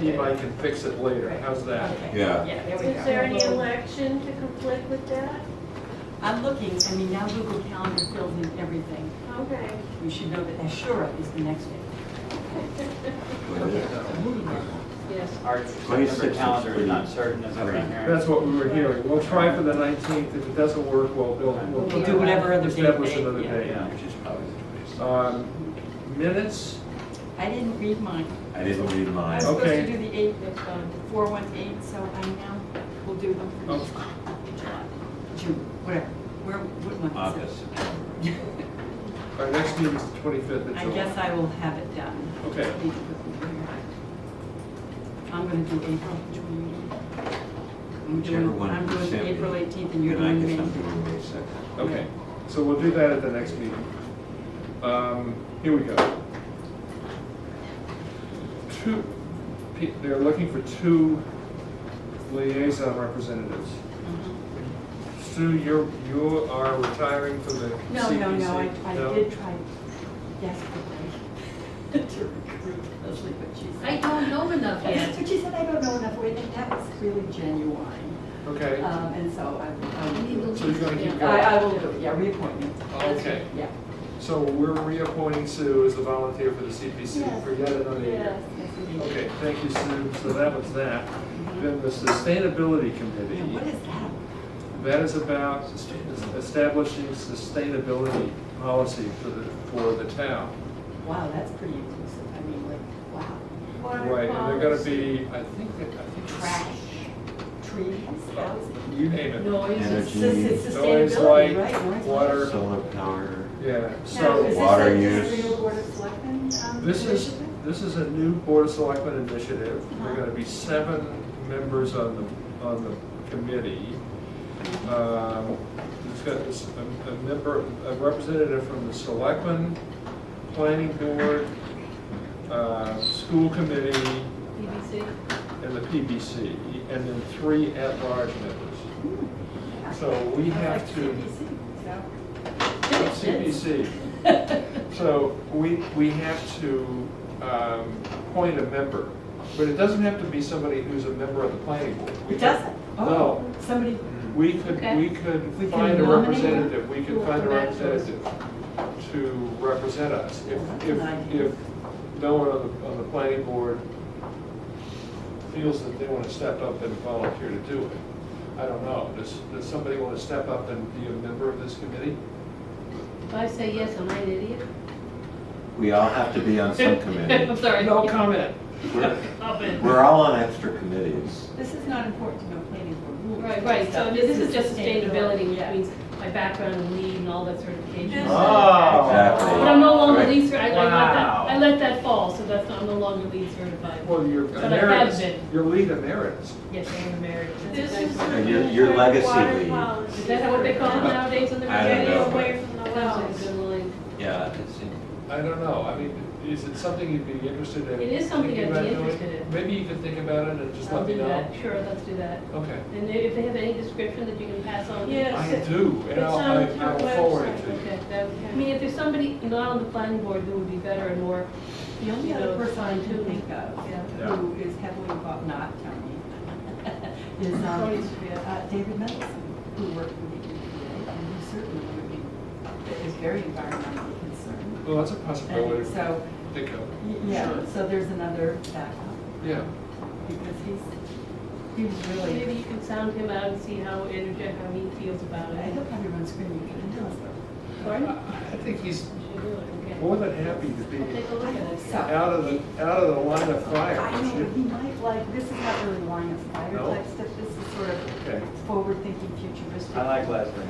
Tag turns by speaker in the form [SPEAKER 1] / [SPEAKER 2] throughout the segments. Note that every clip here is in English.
[SPEAKER 1] he might can fix it later, how's that?
[SPEAKER 2] Okay.
[SPEAKER 3] Yeah.
[SPEAKER 2] there
[SPEAKER 4] Is
[SPEAKER 2] we go.
[SPEAKER 4] there any election to conflict with that?
[SPEAKER 2] I'm looking, I mean, now Google Calendar fills in everything.
[SPEAKER 4] Okay.
[SPEAKER 2] You should know that Ashura is the next day. Moving on.
[SPEAKER 4] Yes.
[SPEAKER 5] Our
[SPEAKER 3] 26th
[SPEAKER 5] September
[SPEAKER 3] is
[SPEAKER 5] calendar is
[SPEAKER 3] pretty-
[SPEAKER 5] not certain, as I'm
[SPEAKER 1] That's
[SPEAKER 5] hearing.
[SPEAKER 1] what we were hearing, we'll try for the nineteenth, if it doesn't work, we'll, we'll.
[SPEAKER 2] We'll do whatever other date
[SPEAKER 1] Establish
[SPEAKER 2] they-
[SPEAKER 1] another
[SPEAKER 2] yeah.
[SPEAKER 1] date.
[SPEAKER 5] Yeah.
[SPEAKER 3] Which is probably the 26th.
[SPEAKER 1] Um, Minutes,
[SPEAKER 2] I didn't read mine.
[SPEAKER 3] I didn't read
[SPEAKER 2] I
[SPEAKER 3] mine.
[SPEAKER 2] was supposed to
[SPEAKER 1] Okay.
[SPEAKER 2] do the eight, the four one eight, so I now will do them for
[SPEAKER 1] Oh.
[SPEAKER 2] July, June, whatever. Where, what month is
[SPEAKER 3] August,
[SPEAKER 2] it?
[SPEAKER 3] September.
[SPEAKER 1] our next meeting is the twenty-fifth of
[SPEAKER 2] I
[SPEAKER 1] July.
[SPEAKER 2] guess I will have it done.
[SPEAKER 1] Okay.
[SPEAKER 2] Need to put them here. I'm gonna do April, June. I'm
[SPEAKER 3] Whichever
[SPEAKER 2] doing,
[SPEAKER 3] one
[SPEAKER 2] I'm
[SPEAKER 3] you
[SPEAKER 2] doing
[SPEAKER 3] sent me.
[SPEAKER 2] April eighteenth and you're
[SPEAKER 3] Then I
[SPEAKER 2] doing
[SPEAKER 3] guess I'm
[SPEAKER 2] May.
[SPEAKER 3] doing May second.
[SPEAKER 1] Okay, so we'll do that at the next meeting. Um, Here we go. Two, pe- they're looking for two liaison representatives.
[SPEAKER 2] Mhm.
[SPEAKER 1] Sue, you're, you are retiring from the CPC?
[SPEAKER 2] No, no, no, I, I did try desperately to recruit Leslie, but she said.
[SPEAKER 4] I don't know enough
[SPEAKER 2] That's
[SPEAKER 4] yet.
[SPEAKER 2] what she said, I don't know enough, wait, and that was really genuine,
[SPEAKER 1] Okay,
[SPEAKER 2] um, and so I, I will do it.
[SPEAKER 1] so you're gonna keep
[SPEAKER 2] I, I
[SPEAKER 1] going.
[SPEAKER 2] will do it, yeah, reappointment. That's-
[SPEAKER 1] Okay.
[SPEAKER 2] Yeah.
[SPEAKER 1] So we're reappointing Sue as a volunteer for the CPC
[SPEAKER 4] Yes.
[SPEAKER 1] for yet another year.
[SPEAKER 2] Yes, indeed.
[SPEAKER 1] Okay, thank you, Sue. So that was that. Then the Sustainability Committee.
[SPEAKER 2] Now, what is that?
[SPEAKER 1] That is about establishing sustainability policy for the, for the town.
[SPEAKER 2] Wow, that's pretty inclusive, I mean, like, wow.
[SPEAKER 1] Right, and they're gonna be, I think, that- I think. it's-
[SPEAKER 2] Trash, trees, housing.
[SPEAKER 1] You name it.
[SPEAKER 2] It's
[SPEAKER 3] Energy.
[SPEAKER 2] it's
[SPEAKER 1] Noise,
[SPEAKER 2] sustainability, right?
[SPEAKER 1] light,
[SPEAKER 2] Noise, light.
[SPEAKER 1] water,
[SPEAKER 3] Solar power.
[SPEAKER 1] yeah,
[SPEAKER 2] Now,
[SPEAKER 1] so.
[SPEAKER 2] is this
[SPEAKER 3] water
[SPEAKER 2] a-
[SPEAKER 3] use.
[SPEAKER 2] Is this a real board of selectmen? um,
[SPEAKER 1] This is,
[SPEAKER 2] initiative?
[SPEAKER 1] this is a new Board of Selectmen initiative. There are gonna be seven members on the, on the committee. Um, It's got this- a a member, a representative from the Selectmen, Planning Board, uh, School Committee,
[SPEAKER 4] BBC?
[SPEAKER 1] and the PBC, and then three at-large members. So we
[SPEAKER 2] I Hmm. like
[SPEAKER 1] have to,
[SPEAKER 2] CPC, so.
[SPEAKER 1] CPC, so we, we have to um, appoint a member, but it doesn't have to be somebody who's a member of the planning board. We
[SPEAKER 2] It
[SPEAKER 1] could-
[SPEAKER 2] doesn't? Oh,
[SPEAKER 1] No.
[SPEAKER 2] Somebody,
[SPEAKER 1] We could, we could
[SPEAKER 2] We can
[SPEAKER 1] find a
[SPEAKER 2] nominate
[SPEAKER 1] representative, we
[SPEAKER 4] who
[SPEAKER 1] could
[SPEAKER 4] will
[SPEAKER 1] find a
[SPEAKER 4] come back to us.
[SPEAKER 1] representative to represent us. If,
[SPEAKER 2] That's an
[SPEAKER 1] if,
[SPEAKER 2] idea.
[SPEAKER 1] if no one on the, on the planning board feels that they want to step up and volunteer to do it, I don't know. Does, does somebody want to step up and be a member of this committee?
[SPEAKER 4] If I say yes, am I an idiot?
[SPEAKER 3] We all have to be on some committee.
[SPEAKER 4] I'm sorry.
[SPEAKER 1] No comment.
[SPEAKER 3] We're-
[SPEAKER 4] Up it.
[SPEAKER 3] We're all on extra committees.
[SPEAKER 2] this is not important to know planning board rules.
[SPEAKER 4] Right, right, so this is just sustainability, which
[SPEAKER 2] Yeah.
[SPEAKER 4] means my background in lead and all that certification.
[SPEAKER 2] Oh.
[SPEAKER 3] Exactly.
[SPEAKER 4] But I'm no longer
[SPEAKER 3] Right.
[SPEAKER 4] lead certified, I let that, I
[SPEAKER 5] Wow.
[SPEAKER 4] let that fall, so that's, not- I'm no longer lead certified.
[SPEAKER 1] Well, you're
[SPEAKER 4] But I have
[SPEAKER 1] emeritus,
[SPEAKER 4] been.
[SPEAKER 1] you're lead emeritus.
[SPEAKER 4] Yes, I'm married.
[SPEAKER 6] This is the
[SPEAKER 3] And your- your legacy
[SPEAKER 6] water
[SPEAKER 3] lead.
[SPEAKER 6] policy.
[SPEAKER 4] Is that what they call it nowadays on the
[SPEAKER 3] I don't
[SPEAKER 6] Getting
[SPEAKER 3] know.
[SPEAKER 4] radio?
[SPEAKER 6] away from the wells.
[SPEAKER 3] Yeah, it's in-
[SPEAKER 1] I don't know, I mean, is it something you'd be interested in?
[SPEAKER 4] It is something
[SPEAKER 1] thinking
[SPEAKER 4] I'd be
[SPEAKER 1] about doing?
[SPEAKER 4] interested in.
[SPEAKER 1] Maybe you could think about it and just
[SPEAKER 4] I'll
[SPEAKER 1] let me
[SPEAKER 4] do
[SPEAKER 1] know.
[SPEAKER 4] that. Sure, let's do that.
[SPEAKER 1] Okay.
[SPEAKER 4] And if they have any description that you can pass on?
[SPEAKER 6] Yeah.
[SPEAKER 1] I
[SPEAKER 6] Yes,
[SPEAKER 1] do, and
[SPEAKER 6] it's
[SPEAKER 1] I'll,
[SPEAKER 6] on
[SPEAKER 1] I-
[SPEAKER 6] your
[SPEAKER 1] I'll forward it
[SPEAKER 6] website,
[SPEAKER 1] to you.
[SPEAKER 4] Okay, that, would- I mean, if there's somebody not on the planning board who would be better and more,
[SPEAKER 2] The only
[SPEAKER 4] You
[SPEAKER 2] other
[SPEAKER 4] know,
[SPEAKER 2] person I can
[SPEAKER 4] fine-tuning.
[SPEAKER 2] think of
[SPEAKER 1] Yeah.
[SPEAKER 2] who is heavily involved, not Tony, is um,
[SPEAKER 4] Tony Shapiro.
[SPEAKER 2] uh, David Mendelson, who worked with the EPA and who certainly would be, is very environmentally concerned.
[SPEAKER 1] Well, that's a
[SPEAKER 2] And
[SPEAKER 1] possibility.
[SPEAKER 2] so,
[SPEAKER 1] Think of,
[SPEAKER 2] y- yeah,
[SPEAKER 1] Sure.
[SPEAKER 2] so there's another backup
[SPEAKER 1] yeah.
[SPEAKER 2] because he's, he was
[SPEAKER 4] maybe
[SPEAKER 2] really,
[SPEAKER 4] you can sound him out and see how energetic, how he feels about
[SPEAKER 2] I
[SPEAKER 4] it.
[SPEAKER 2] hope everyone's screaming, you can tell
[SPEAKER 4] Pardon?
[SPEAKER 1] I think he's
[SPEAKER 4] Okay.
[SPEAKER 1] more than happy to be
[SPEAKER 4] I'll take a look at it.
[SPEAKER 2] us.
[SPEAKER 1] out of the, out of the line of fire.
[SPEAKER 2] I know, he might like, this is not really line of fire
[SPEAKER 1] No.
[SPEAKER 2] type stuff, this is sort of
[SPEAKER 1] Okay,
[SPEAKER 2] forward-thinking, futuristic.
[SPEAKER 5] I like Leslie.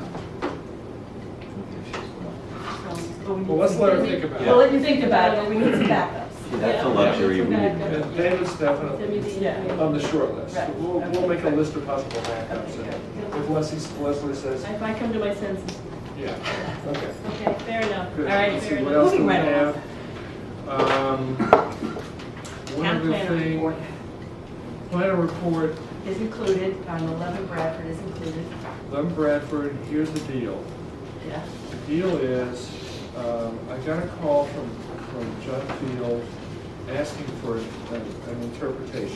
[SPEAKER 1] well, let's let her think about
[SPEAKER 2] Well,
[SPEAKER 1] it.
[SPEAKER 2] let you think about it, we need some backups.
[SPEAKER 3] see, that's a
[SPEAKER 4] Yeah.
[SPEAKER 3] luxury we
[SPEAKER 4] Yeah.
[SPEAKER 3] need.
[SPEAKER 1] And David's
[SPEAKER 4] Send me
[SPEAKER 1] definitely
[SPEAKER 4] the
[SPEAKER 2] Yeah.
[SPEAKER 4] email.
[SPEAKER 1] on the short list.
[SPEAKER 2] Right.
[SPEAKER 1] We'll, we'll make a list of possible backups, and if Leslie, Leslie says,
[SPEAKER 4] If I come to my senses.
[SPEAKER 1] yeah, okay.
[SPEAKER 4] Okay, fair enough. All
[SPEAKER 1] Good.
[SPEAKER 4] right,
[SPEAKER 1] Let's
[SPEAKER 4] fair
[SPEAKER 1] see, what
[SPEAKER 4] enough.
[SPEAKER 1] else do we
[SPEAKER 2] Moving right
[SPEAKER 1] have? Um, One
[SPEAKER 2] Town
[SPEAKER 1] other
[SPEAKER 2] planner report
[SPEAKER 1] thing, planner report,
[SPEAKER 2] is included, um, eleven Bradford is included,
[SPEAKER 1] Lem Bradford, here's the deal.
[SPEAKER 2] yeah.
[SPEAKER 1] The deal is, um, I got a call from, from John Field asking for an an interpretation.